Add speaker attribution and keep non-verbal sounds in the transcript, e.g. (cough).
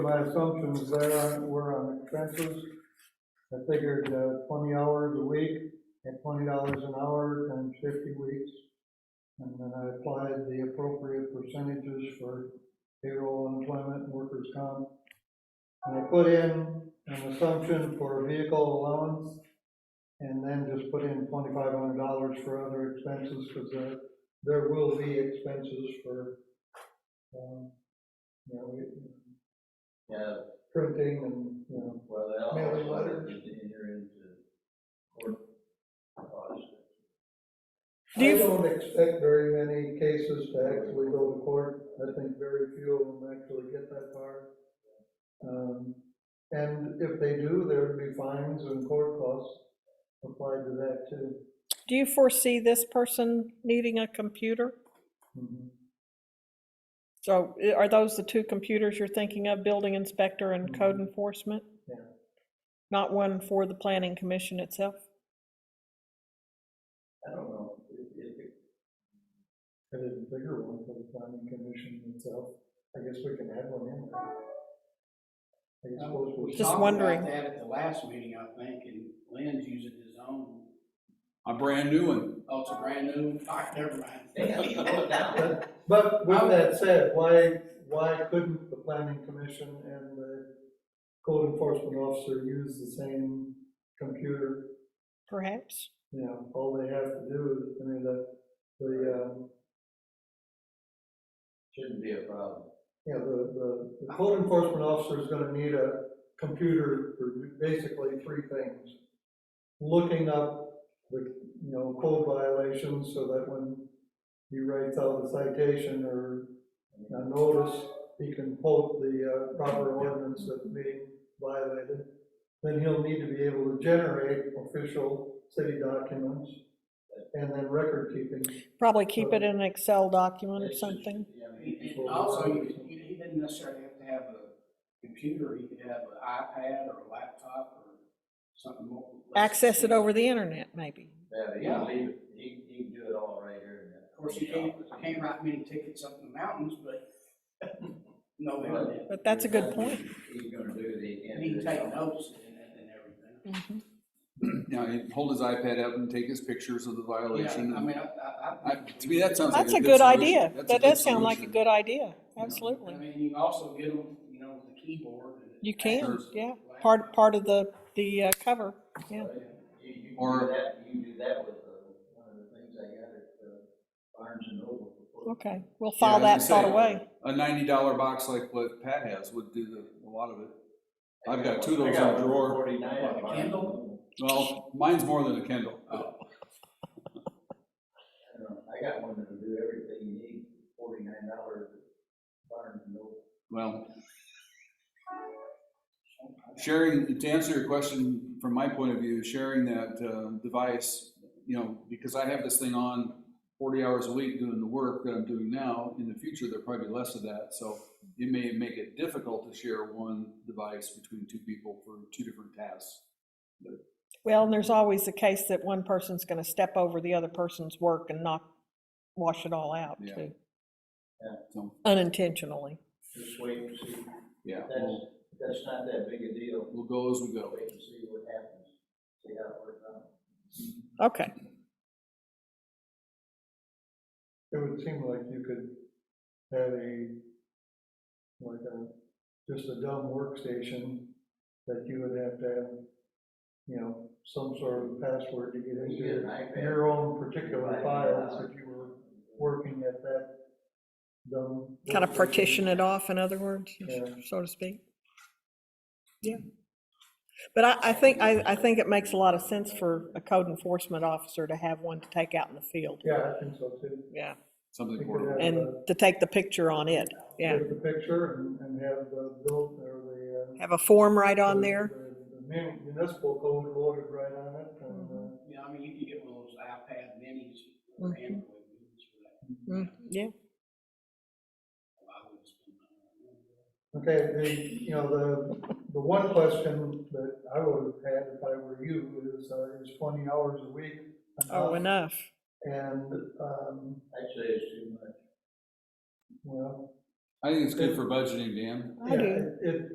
Speaker 1: My assumptions there were on the expenses. I figured uh, twenty hours a week at twenty dollars an hour times fifty weeks. And then I applied the appropriate percentages for payroll, unemployment, and workers' comp. And I put in an assumption for vehicle allowance and then just put in twenty-five hundred dollars for other expenses because there, there will be expenses for, um, you know, we-
Speaker 2: Yeah,
Speaker 1: printing and, you know,
Speaker 2: well, they all.
Speaker 1: Mailing letters.
Speaker 2: Need to enter into court costs.
Speaker 3: Do you-
Speaker 1: I don't expect very many cases to actually go to court. I think very few of them actually get that far. Um, and if they do, there would be fines and court costs applied to that too.
Speaker 3: Do you foresee this person needing a computer?
Speaker 1: Mm-hmm.
Speaker 3: So i- are those the two computers you're thinking of, building inspector and code
Speaker 4: Mm-hmm.
Speaker 3: enforcement?
Speaker 1: Yeah.
Speaker 3: Not one for the planning commission itself?
Speaker 2: I don't know, if, if, it-
Speaker 1: I did a bigger one for the planning commission itself. I guess we can add one in there. I suppose we'll.
Speaker 3: Just wondering.
Speaker 5: We talked about that at the last meeting, I think, and Lynn's using his own,
Speaker 4: A brand new one. (clears throat)
Speaker 5: oh, it's a brand new, (laughs) all right, never mind.
Speaker 2: they have to vote down.
Speaker 1: But with that said, why, why couldn't the planning commission and the code enforcement officer use the same computer?
Speaker 3: Perhaps?
Speaker 1: You know, all they have to do is, I mean, the, the, um,
Speaker 2: Shouldn't be a problem.
Speaker 1: you know, the, the, the code enforcement officer is gonna need a computer for basically three things. Looking up the, you know, code violations so that when he writes out a citation or a notice, he can quote the uh, proper ordinance that's being violated. Then he'll need to be able to generate official city documents and then record keeping.
Speaker 3: Probably keep it in an Excel document or
Speaker 2: It's just-
Speaker 3: something.
Speaker 2: yeah, I mean,
Speaker 5: And also, you- you- he didn't necessarily have to have a computer, he could have an iPad or a laptop or something more.
Speaker 3: Access it over the internet, maybe.
Speaker 2: Yeah, he
Speaker 5: Yeah.
Speaker 2: can leave, it. he, he can do it all right here in that.
Speaker 5: Of course, you can't, can't write many tickets up in the mountains, but (laughs) no internet,
Speaker 3: But that's a good point.
Speaker 2: He's gonna do it, he can't
Speaker 5: he
Speaker 2: do
Speaker 5: can
Speaker 2: it.
Speaker 5: take notes and, and everything.
Speaker 4: Now, he'd hold his iPad up and take his pictures of the violation.
Speaker 5: Yeah, I
Speaker 4: and-
Speaker 5: mean, I, I,
Speaker 4: I-
Speaker 5: I.
Speaker 4: To me, that sounds like a
Speaker 3: That's
Speaker 4: good
Speaker 3: a good
Speaker 4: solution.
Speaker 3: idea.
Speaker 4: That's a
Speaker 3: That
Speaker 4: good
Speaker 3: does sound like a
Speaker 4: solution.
Speaker 3: good idea,
Speaker 4: Yeah.
Speaker 5: I
Speaker 3: absolutely.
Speaker 5: mean, you can also get them, you know, with the keyboard. and-
Speaker 3: You can,
Speaker 4: Sure.
Speaker 3: yeah. Part, part of the, the uh, cover, yeah.
Speaker 2: You, you can do
Speaker 4: Or-
Speaker 2: that, you can do that with, uh, one of the things I got at, uh, Barnes and Noble. before.
Speaker 3: Okay, we'll
Speaker 4: Yeah, I
Speaker 3: file
Speaker 4: was
Speaker 3: that
Speaker 4: gonna
Speaker 3: thought
Speaker 4: say,
Speaker 3: away.
Speaker 4: A ninety dollar box like what Pat has would do the, a lot of it. I've got two of
Speaker 2: I
Speaker 4: those
Speaker 2: got
Speaker 4: in a
Speaker 2: one
Speaker 4: drawer.
Speaker 2: for Forty-nine. at
Speaker 5: Like a
Speaker 2: Barnes and
Speaker 5: candle?
Speaker 2: Noble.
Speaker 4: Well, mine's more than a Kindle.
Speaker 5: Oh.
Speaker 2: I don't know, I got one that'll do everything you need, forty-nine dollars, Barnes and Noble.
Speaker 4: Well, sharing, to answer your question from my point of view, sharing that um, device, you know, because I have this thing on forty hours a week doing the work that I'm doing now, in the future, there'll probably be less of that, so it may make it difficult to share one device between two people for two different tasks.
Speaker 3: Well, and there's always the case that one person's gonna step over the other person's work and not wash it all out
Speaker 4: Yeah.
Speaker 3: too,
Speaker 4: So,
Speaker 3: unintentionally.
Speaker 2: Just wait and see.
Speaker 4: yeah,
Speaker 2: That's,
Speaker 4: we'll,
Speaker 2: that's not that big a deal.
Speaker 4: we'll go as we go.
Speaker 2: Wait and see what happens, see how it works out.
Speaker 3: Okay,
Speaker 1: It would seem like you could have a, like a, just a dumb workstation that you would have to have, you know, some sort of password to get
Speaker 2: You get an
Speaker 1: into
Speaker 2: iPad.
Speaker 1: your own particular files if you were working at that dumb.
Speaker 3: kind of
Speaker 1: workstation.
Speaker 3: partition it off, in other words,
Speaker 1: Yeah.
Speaker 3: so to speak. Yeah. But I, I think, I, I think it makes a lot of sense for a code enforcement officer to have one to take out in the field.
Speaker 1: Yeah, I think so too.
Speaker 3: Yeah,
Speaker 4: Something
Speaker 1: You could
Speaker 4: portable.
Speaker 1: have
Speaker 3: and
Speaker 1: a-
Speaker 3: to take the picture on it, yeah.
Speaker 1: Take the picture and, and have the bill or the. uh,
Speaker 3: Have a form right on
Speaker 1: the-
Speaker 3: there.
Speaker 1: the- the mun- Municipal code loaded right on it and, uh,
Speaker 5: You know, I mean, you can get one of those iPad minis or
Speaker 3: Mhm.
Speaker 5: Android minis for that.
Speaker 3: Mm, Yeah,
Speaker 5: I would spend money on that.
Speaker 1: Okay, the, you know, the, the one question that I would have had if I were you is, uh, is twenty hours a week.
Speaker 3: oh,
Speaker 1: enough?
Speaker 3: enough.
Speaker 1: And, um,
Speaker 2: Actually, it's too much.
Speaker 1: well.
Speaker 4: I think it's good for budgeting, Dan.
Speaker 3: I
Speaker 1: yeah,
Speaker 3: do.
Speaker 1: It,